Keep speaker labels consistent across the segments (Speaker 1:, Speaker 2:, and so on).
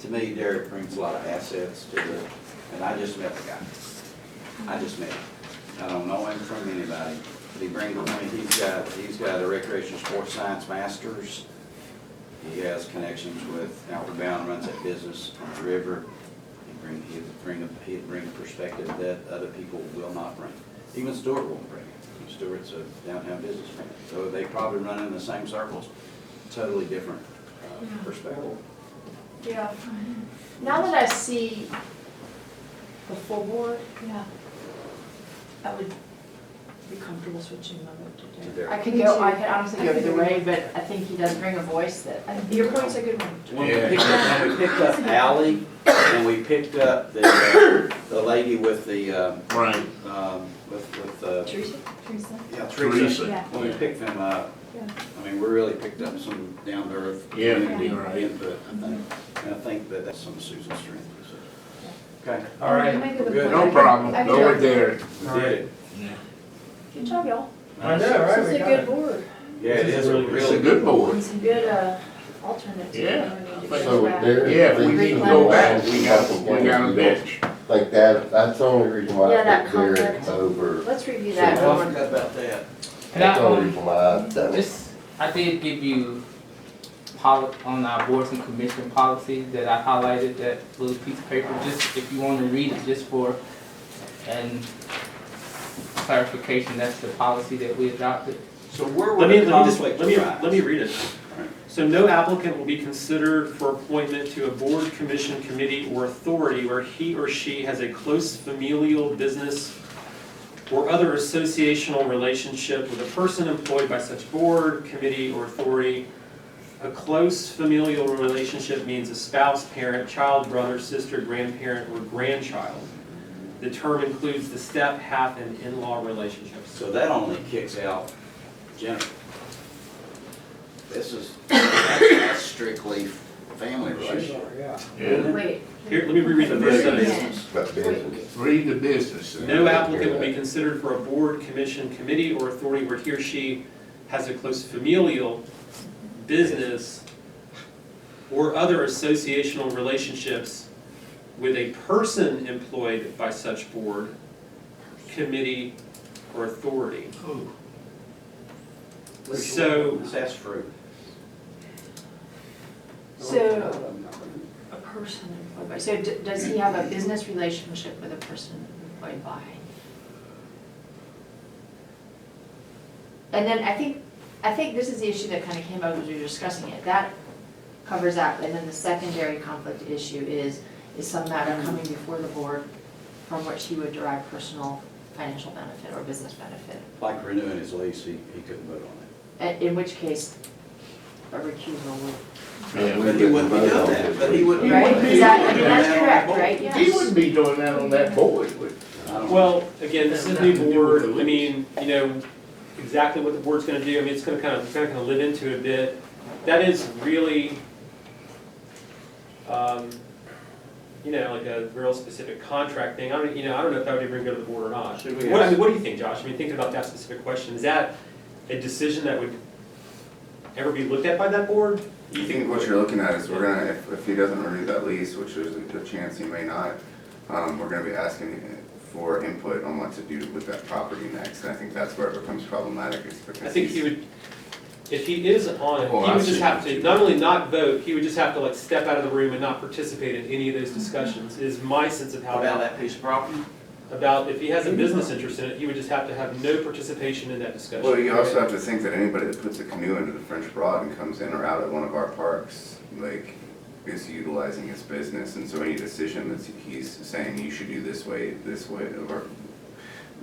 Speaker 1: to me, Derek brings a lot of assets to the, and I just met the guy. I just met him. I don't know him from anybody, but he brings, I mean, he's got, he's got a recreation sports science masters. He has connections with Outward Bound, runs that business on the river. He bring, he'd bring, a- he'd bring a perspective that other people will not bring. Even Stewart won't bring it. Stewart's a downtown businessman, so they probably run in the same circles, totally different uh,
Speaker 2: Yeah.
Speaker 1: perspective.
Speaker 2: Yeah. Now that I see the full board, yeah, I would be comfortable switching my vote to
Speaker 1: To
Speaker 2: Derek.
Speaker 1: Derek.
Speaker 3: I could go, I could honestly
Speaker 2: I
Speaker 3: go
Speaker 2: could
Speaker 3: either
Speaker 2: do
Speaker 3: way, but I think he does bring a voice that,
Speaker 2: I think Your point's a good one.
Speaker 1: When we
Speaker 4: Yeah.
Speaker 1: picked up, when we picked up Ally, and we picked up the, uh, the lady with the, um,
Speaker 4: Right.
Speaker 1: um, with, with, uh,
Speaker 2: Teresa?
Speaker 3: Teresa.
Speaker 1: yeah, Teresa.
Speaker 4: Teresa.
Speaker 1: When we picked them up,
Speaker 2: Yeah.
Speaker 1: I mean, we really picked up some down to earth
Speaker 4: Yeah,
Speaker 1: community
Speaker 4: you're right.
Speaker 1: input, I think. And I think that that's some of Susan's strength. so. Okay, all
Speaker 2: Well,
Speaker 1: right,
Speaker 2: you make a
Speaker 1: we're
Speaker 2: good
Speaker 1: good.
Speaker 4: No problem, go with Derek.
Speaker 1: We did it.
Speaker 2: Good job, y'all.
Speaker 5: I know, right?
Speaker 2: This is
Speaker 5: We
Speaker 2: a
Speaker 5: got
Speaker 2: good
Speaker 5: it.
Speaker 2: board.
Speaker 1: Yeah, it is a
Speaker 4: It's
Speaker 1: really
Speaker 4: a good board.
Speaker 2: Some good uh, alternates.
Speaker 4: Yeah.
Speaker 6: So there.
Speaker 4: Yeah, if we need to go back, we got, we got a bench.
Speaker 6: Like that, that's the only reason why
Speaker 3: Yeah,
Speaker 6: I
Speaker 3: that
Speaker 6: put Derek
Speaker 3: conflict.
Speaker 6: over.
Speaker 2: Let's review
Speaker 1: Yeah, I
Speaker 3: Yeah.
Speaker 2: that.
Speaker 5: uh,
Speaker 1: forgot about that.
Speaker 7: And I,
Speaker 6: That's the only
Speaker 7: um,
Speaker 6: reason why I done it.
Speaker 7: just, I did give you poli- on our boards and commission policy that I highlighted that little piece of paper, just if you want to read it, just for and clarification, that's the policy that we adopted.
Speaker 1: So where were
Speaker 5: Let me,
Speaker 1: the
Speaker 5: let me just, let
Speaker 1: conflicts
Speaker 5: me,
Speaker 1: arise?
Speaker 5: let me read it. So no applicant will be considered for appointment to a board, commission, committee, or authority where he or she has a close familial business or other associational relationship with a person employed by such board, committee, or authority. A close familial relationship means a spouse, parent, child, brother, sister, grandparent, or grandchild. The term includes the step, half, and in-law relationships.
Speaker 1: So that only kicks out Jennifer. This is, that's strictly family relationship.
Speaker 4: Yeah.
Speaker 3: Wait.
Speaker 5: Here, let me reread the first
Speaker 1: Family business.
Speaker 5: sentence.
Speaker 6: But business.
Speaker 4: Read the business. uh,
Speaker 5: No applicant will be considered for a board, commission, committee, or authority where he or she has a close familial, business, or other associational relationships with a person employed by such board, committee, or authority. So-
Speaker 1: That's true.
Speaker 2: So a person employed by, so d- does he have a business relationship with a person employed by? And then I think, I think this is the issue that kind of came up as we were discussing it, that covers that, and then the secondary conflict issue is, is some matter coming before the board from which he would derive personal financial benefit or business benefit,
Speaker 1: Like renewing his lease, he, he couldn't vote on
Speaker 3: A- in which case, a recusal would.
Speaker 1: it.
Speaker 4: Yeah.
Speaker 6: But he wouldn't be doing that, but he wouldn't-
Speaker 3: Right,
Speaker 4: wouldn't be
Speaker 3: is that, I mean,
Speaker 4: doing
Speaker 3: that's
Speaker 1: that on
Speaker 3: correct,
Speaker 1: the board.
Speaker 3: right?
Speaker 4: He
Speaker 3: Yes.
Speaker 4: wouldn't be doing that on that board, would
Speaker 1: I don't-
Speaker 5: Well, again, this is new
Speaker 4: Nothing to do with
Speaker 5: board,
Speaker 4: the
Speaker 5: I mean, you know, exactly what the board's gonna do, I mean, it's gonna kind of, kind of live into it a bit. That is really, um, you know, like a real specific contract thing, I don't, you know, I don't know if that would even go to the board or not.
Speaker 1: Should we
Speaker 5: What, I
Speaker 1: ask-
Speaker 5: mean, what do you think, Josh, I mean, thinking about that specific question, is that a decision that would ever be looked at by that board? Do
Speaker 8: I
Speaker 5: you
Speaker 8: think what you're looking at is we're gonna, if, if he doesn't renew that lease, which there's a good chance he may not, um, we're gonna be asking for input on what to do with that property next, and I think that's where it becomes problematic, is because
Speaker 5: I think he
Speaker 8: he's-
Speaker 5: would, if he is on it,
Speaker 8: Oh,
Speaker 5: he
Speaker 8: I
Speaker 5: would just
Speaker 8: see.
Speaker 5: have to, not only not vote, he would just have to like step out of the room and not participate in any of those discussions, is my sense of
Speaker 1: How
Speaker 5: how
Speaker 1: about
Speaker 5: that,
Speaker 1: that piece of property?
Speaker 5: about if he has a business interest in it, he would just have to have no participation in that discussion.
Speaker 8: Well, you also have to think that anybody that puts a canoe into the French Broad and comes in or out of one of our parks, like, is utilizing his business, and so any decision that he's saying, you should do this way, this way, or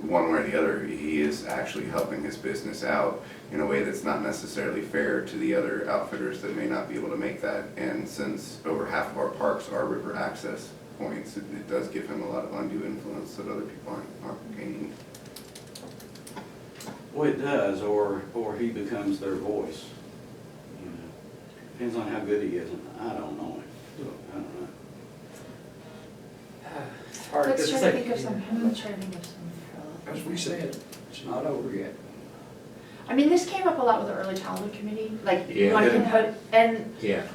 Speaker 8: one way or the other, he is actually helping his business out in a way that's not necessarily fair to the other outfitters that may not be able to make that. And since over half of our parks are river access points, it it does give him a lot of undue influence that other people aren't, aren't gaining.
Speaker 1: Well, it does, or, or he becomes their voice. you know. Depends on how good he is, and I don't know him, so, I don't know.
Speaker 5: All right,
Speaker 2: Let's try
Speaker 5: that's
Speaker 2: to
Speaker 5: like-
Speaker 2: think of some, let's try to think of some parallel.
Speaker 9: As we said, it's not over yet.
Speaker 2: I mean, this came up a lot with the early childhood committee, like, you
Speaker 4: Yeah.
Speaker 2: want to compose, and
Speaker 4: Yeah.